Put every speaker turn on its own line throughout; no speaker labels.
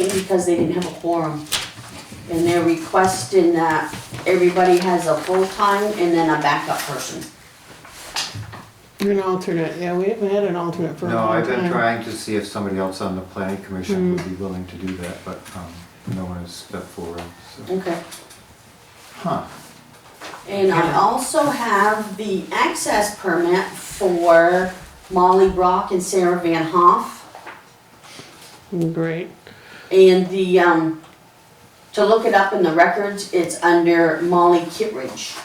because they didn't have a quorum. And they're requesting that everybody has a full-time and then a backup person.
An alternate, yeah, we haven't had an alternate for a
No,
long
I've
time. Hmm.
been trying to see if somebody else on the planning commission would be willing to do that, but um, no one has stepped forward, so.
Okay.
Huh,
And I also have the access permit for Molly Brock and Sarah Van Hoff.
Mm, Great,
And the, um, to look it up in the records, it's under Molly Kittredge.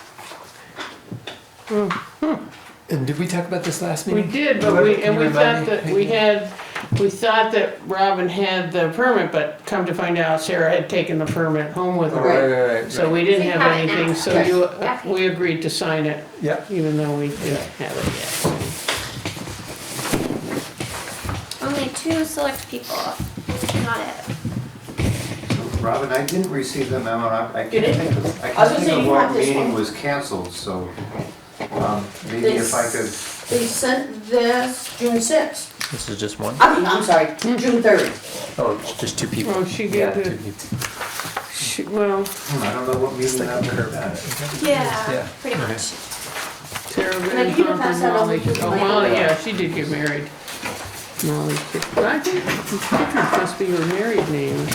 And did we talk about this last
we
meeting?
did, but we,
Can
and
you
we
remind
thought
me?
that, we had, we thought that Robin had the permit, but come to find out Sarah had taken the permit home with
Oh,
her.
right, right, right.
So we didn't
We
have
have it now.
anything, so
Yes.
you, uh, we agreed to sign it,
Yep.
even though we didn't have it yet.
Only two select people, not it.
Robin, I didn't receive the memo, and I I
You
can't
didn't?
think of, I
I was
can't
gonna say,
think of
you have
what
this
meeting
one.
was canceled, so um, maybe if I could,
They sent this June sixth.
This is just one?
I mean, I'm sorry, June third.
Oh, it's just two people.
Oh, she
Yeah,
gave
two
it,
people.
she, well,
hmm, I don't know what meeting that was.
Yeah.
Yeah, pretty much.
Sarah
Can
Van
I give you
Hoff
pass
and
that over
Molly.
to the
Oh,
lady?
Molly, yeah, she did get married. Molly, Kittredge. I think Kittredge must be her married name.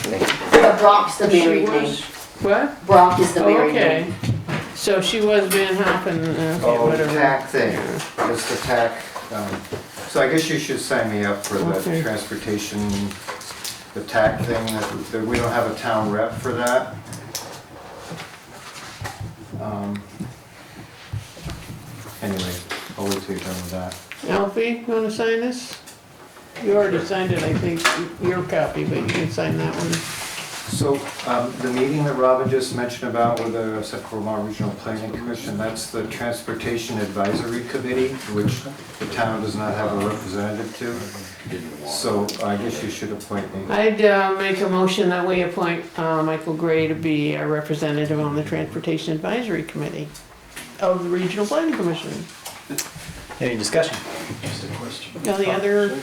But Brock's the
She
married
was-
name.
What?
Brock is the
Oh,
married
okay.
name.
So she was Van Hoppen, okay,
Oh, the
whatever.
tack thing, it's the tack. um, So I guess you should sign me up for the
Okay.
transportation, the tack thing, that- that we don't have a town rep for that. Um, Anyway, I'll wait till you're done with that.
Alfie, wanna sign this? You already signed it, I think, your copy, but you can sign that one.
So um, the meeting that Robin just mentioned about with the Sacramento Regional Planning Commission, that's the Transportation Advisory Committee, which the town does not have a representative to. So I guess you should appoint me.
I'd, uh, make a motion that we appoint, uh, Michael Gray to be a representative on the Transportation Advisory Committee of the Regional Planning Commission.
Any discussion?
Any other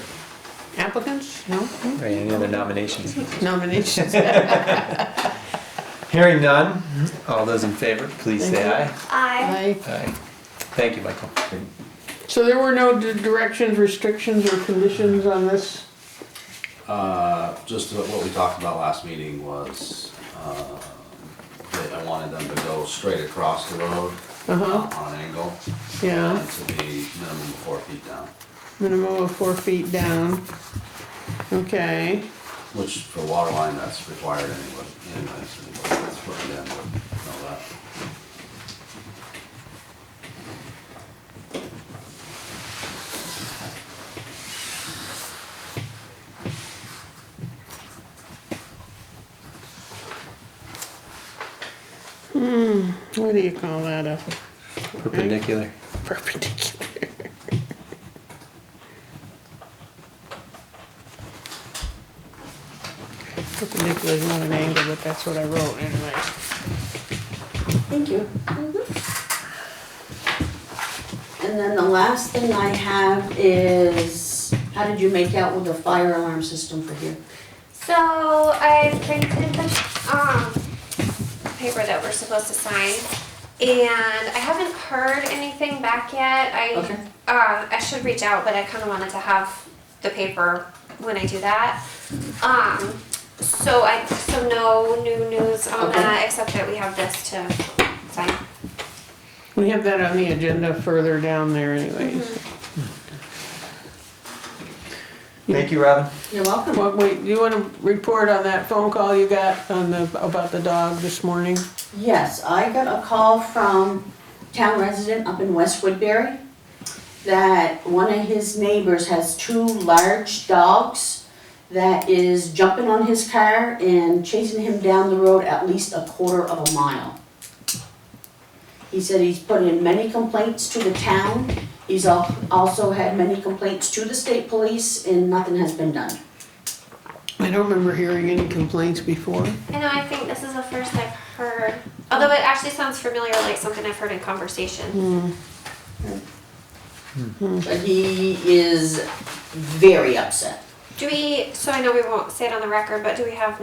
applicants? No
Right, Any other nominations?
nominations?
Hearing none, all those in favor, please say aye.
I,
Aye.
Aye. Thank you, Michael.
So there were no di- directions, restrictions, or conditions on this?
Uh, just what we talked about last meeting was, uh, that I wanted them to go straight across the road
Uh-huh,
on an angle
yeah.
and to be minimum four feet down,
Minimum of four feet down. Okay,
which for water line, that's required anyway, anyways, anybody that's putting in would know that.
what do you call that, a
Perpendicular.
perpendicular? Perpendicular is not an angle, but that's what I wrote anyway.
Thank you. Mm-hmm. And then the last thing I have is, how did you make out with the fire alarm system for here?
so I printed the, um, paper that we're supposed to sign. And I haven't heard anything back yet. I,
Okay.
uh, I should reach out, but I kinda wanted to have the paper when I do that. Um, so I, so no new news on
Okay.
that, except that we have this to sign.
We have that on the agenda further down there anyways.
Thank you, Robin.
You're welcome.
Well, wait, do you wanna report on that phone call you got on the, about the dog this morning?
Yes, I got a call from town resident up in West Woodbury that one of his neighbors has two large dogs that is jumping on his car and chasing him down the road at least a quarter of a mile. He said he's put in many complaints to the town. He's al- also had many complaints to the state police and nothing has been done.
I don't remember hearing any complaints before.
I know, I think this is the first I've heard, although it actually sounds familiar, like something I've heard in conversation.
But he is very upset.
Do we, so I know we won't say it on the record, but do we have